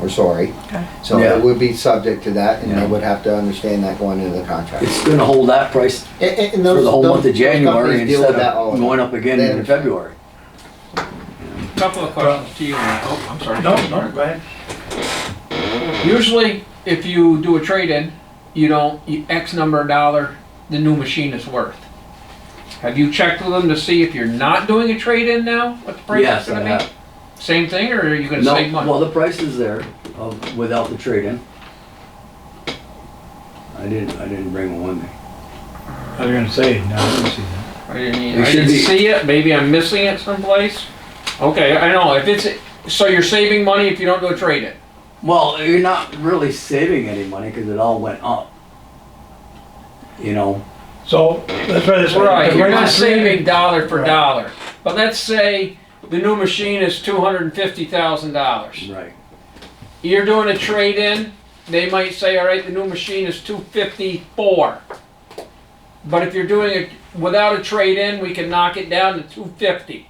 We're sorry. Okay. So Yeah. it would be subject to that and Yeah. they would have to understand that going into the contract. It's gonna hold that price And- and- and for those- the whole those- month of those January companies deal instead with that all of the going time. up again They in February. Couple of questions to you. Matt. Oh, I'm sorry. No, no, go ahead. Usually, if you do a trade-in, you don't, you X number of dollar the new machine is worth. Have you checked with them to see if you're not doing a trade-in now, what the price Yes, is gonna I be? have. Same thing, or are you gonna No, save money? well, the price is there of, without the trade-in. I didn't, I didn't bring one with me. I was gonna say, no, I didn't see that. I didn't, It e- I should didn't be- see it, maybe I'm missing it someplace. Okay, I know, if it's, so you're saving money if you don't do a trade-in? Well, you're not really saving any money because it all went up. You know, So, that's why this. Right, the you're price not is three- saving dollar for Right. dollar. But let's say the new machine is two hundred and fifty thousand dollars. right, you're doing a trade-in, they might say, all right, the new machine is two fifty-four. But if you're doing it without a trade-in, we can knock it down to two fifty.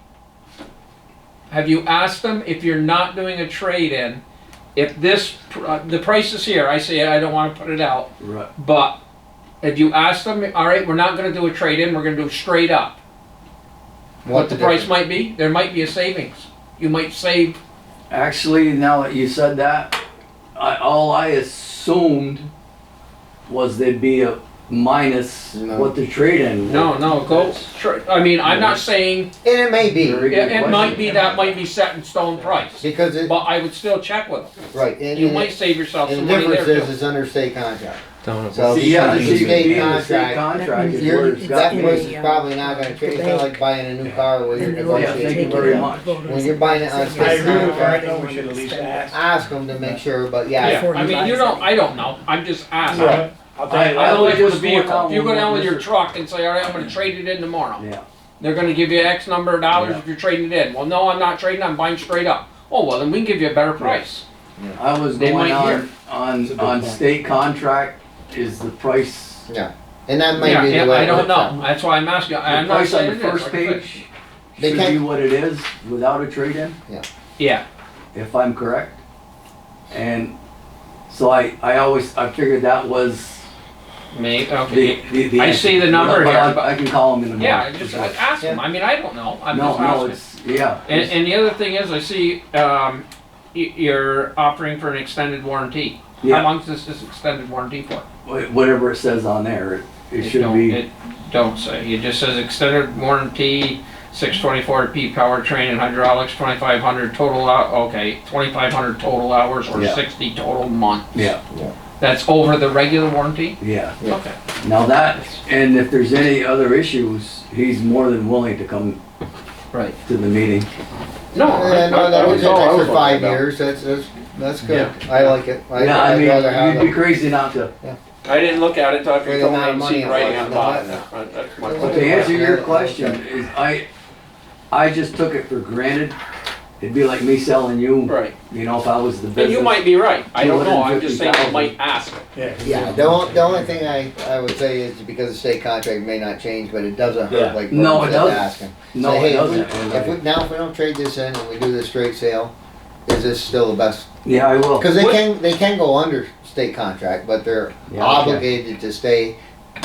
Have you asked them if you're not doing a trade-in, if this, pr- uh, the price is here, I say, I don't wanna put it out, right. but have you asked them, all right, we're not gonna do a trade-in, we're gonna do straight up? What the price might be, there might be a savings. You might save Actually, now that you said that, I, all I assumed was there'd be a minus No. what the trade-in. No, no, go, tr- I mean, I'm not saying, And it may Very be, it, good it question. might be, that might be set in stone price, because it, but I would still check with them. right, and, You and might it- save yourself and some the money difference there is, too. it's under state contract. Don't So See, yeah, because the it's state, state the state contract, contract is You're- where it's got that It's me. price is a, probably uh, not gonna the change, it's not bank. like buying a new car where you're And they're all Yeah, thank you negotiating. taking very it with much. them. out. Voters When you're buying it on say I state yes, agree with uh, you, I contract, know we should at least ask. Ask them to make sure, but yeah, Yeah, Before I you mean, buy you don't, something. I don't know, I'm just asking. Right. I'll tell I, you I that. Like always with a just go vehicle, down. if you go with down with Mr. your truck and say, all right, I'm gonna trade it in tomorrow, Yeah, they're gonna give you X number of dollars if you're trading it in. Well, no, I'm not trading, I'm buying straight up. Oh, well, then we can give you a better price. I was They going might on, hear. on, a good on point. state contract is the price, the and that Yeah, might be yeah, the way. I it don't works out. know, that's why I'm asking, I'm not price on saying the it is. first like I said. page They should be can't- what it is without a trade-in. Yeah, if I'm correct. And so I, I always, I figured that was me, the, okay, the, the I answer. see the number But here, but- I, I can call him in the morning. yeah, I just, I ask them, I mean, I don't know, I'm No, just no, asking. it's, yeah. And, and the other thing is, I see, um, y- you're offering for an extended warranty. How Yeah, long's this, this extended warranty for? wha- whatever it says on there, it- it should don't- be, It don't say, it just says extended warranty, six twenty-four P powertrain and hydraulics, twenty-five hundred total hou- okay, twenty-five hundred total hours or Yeah. sixty total months. yeah, That's over the regular warranty? yeah. Yeah. Okay. Now that, and if there's any other issues, he's more than willing to come Right. to the meeting. No, I- Yeah, no, that I- was an all I extra was five wondering about. years, that's, that's, that's good, I like it, I- Yeah, I I'd rather have mean, you'd be it. crazy not to. I didn't look at it until after For you the told me amount of and seen money it writing was, on the bottom. no, That- That's my But But question. to answer your question, is I, I just took it for granted. It'd be like me selling you. Right, You know, if I was the and business. you might be right, I don't know, I'm just saying I 250,000. might ask. Yeah, the only, the only thing I, I would say is because the state contract may not change, but it doesn't Yeah. hurt like No, Burton it said to doesn't. ask him. No, Say, it hey, if we- If we, doesn't. now if we don't trade this in and we do this straight sale, is this still the best? Yeah, I will. Cause they What- can, they can go under state contract, but they're Yeah, okay. obligated to stay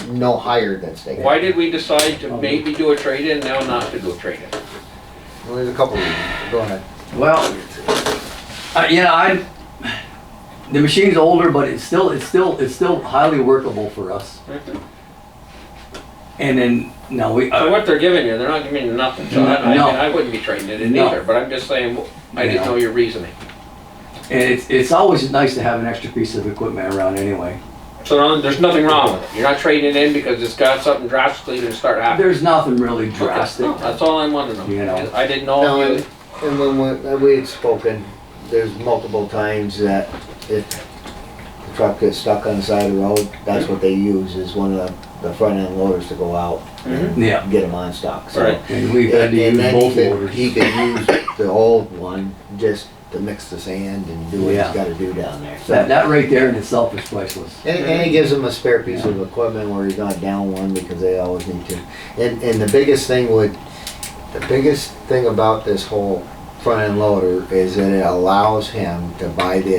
no higher than state. Why did we decide to maybe do a trade-in, now not to do a trade-in? Well, There's a couple reasons, go ahead. Well, I- you know, I, the machine's older, but it's still, it's still, it's still highly workable for us. And then, no, we, So uh, what they're giving you, they're not giving you nothing, so I, I mean, No. I wouldn't be trading it in No. either, but I'm just saying, I didn't Yeah. know your reasoning. and it's, it's always nice to have an extra piece of equipment around anyway. So no- there's nothing wrong with it, you're not trading it in because it's got something drastically to start happening. There's nothing really drastic. No, That's all I wanted to You know. know, I didn't No, know if and, you, and when we, uh, we had spoken, there's multiple times that if the truck gets stuck on the side of the road, that's what they use, is one of the, the front end loaders to go out and Yeah, get them on stock, so. Right. and we've had to And- and use then he both could- motors. He could use the old one just to mix the sand and do what he's Yeah. gotta do down there, so. That, that right there in itself is priceless. And, and it gives them a spare piece of equipment where he's not down one because they always need to. And, and the biggest thing would, the biggest thing about this whole front end loader is that it allows him to buy the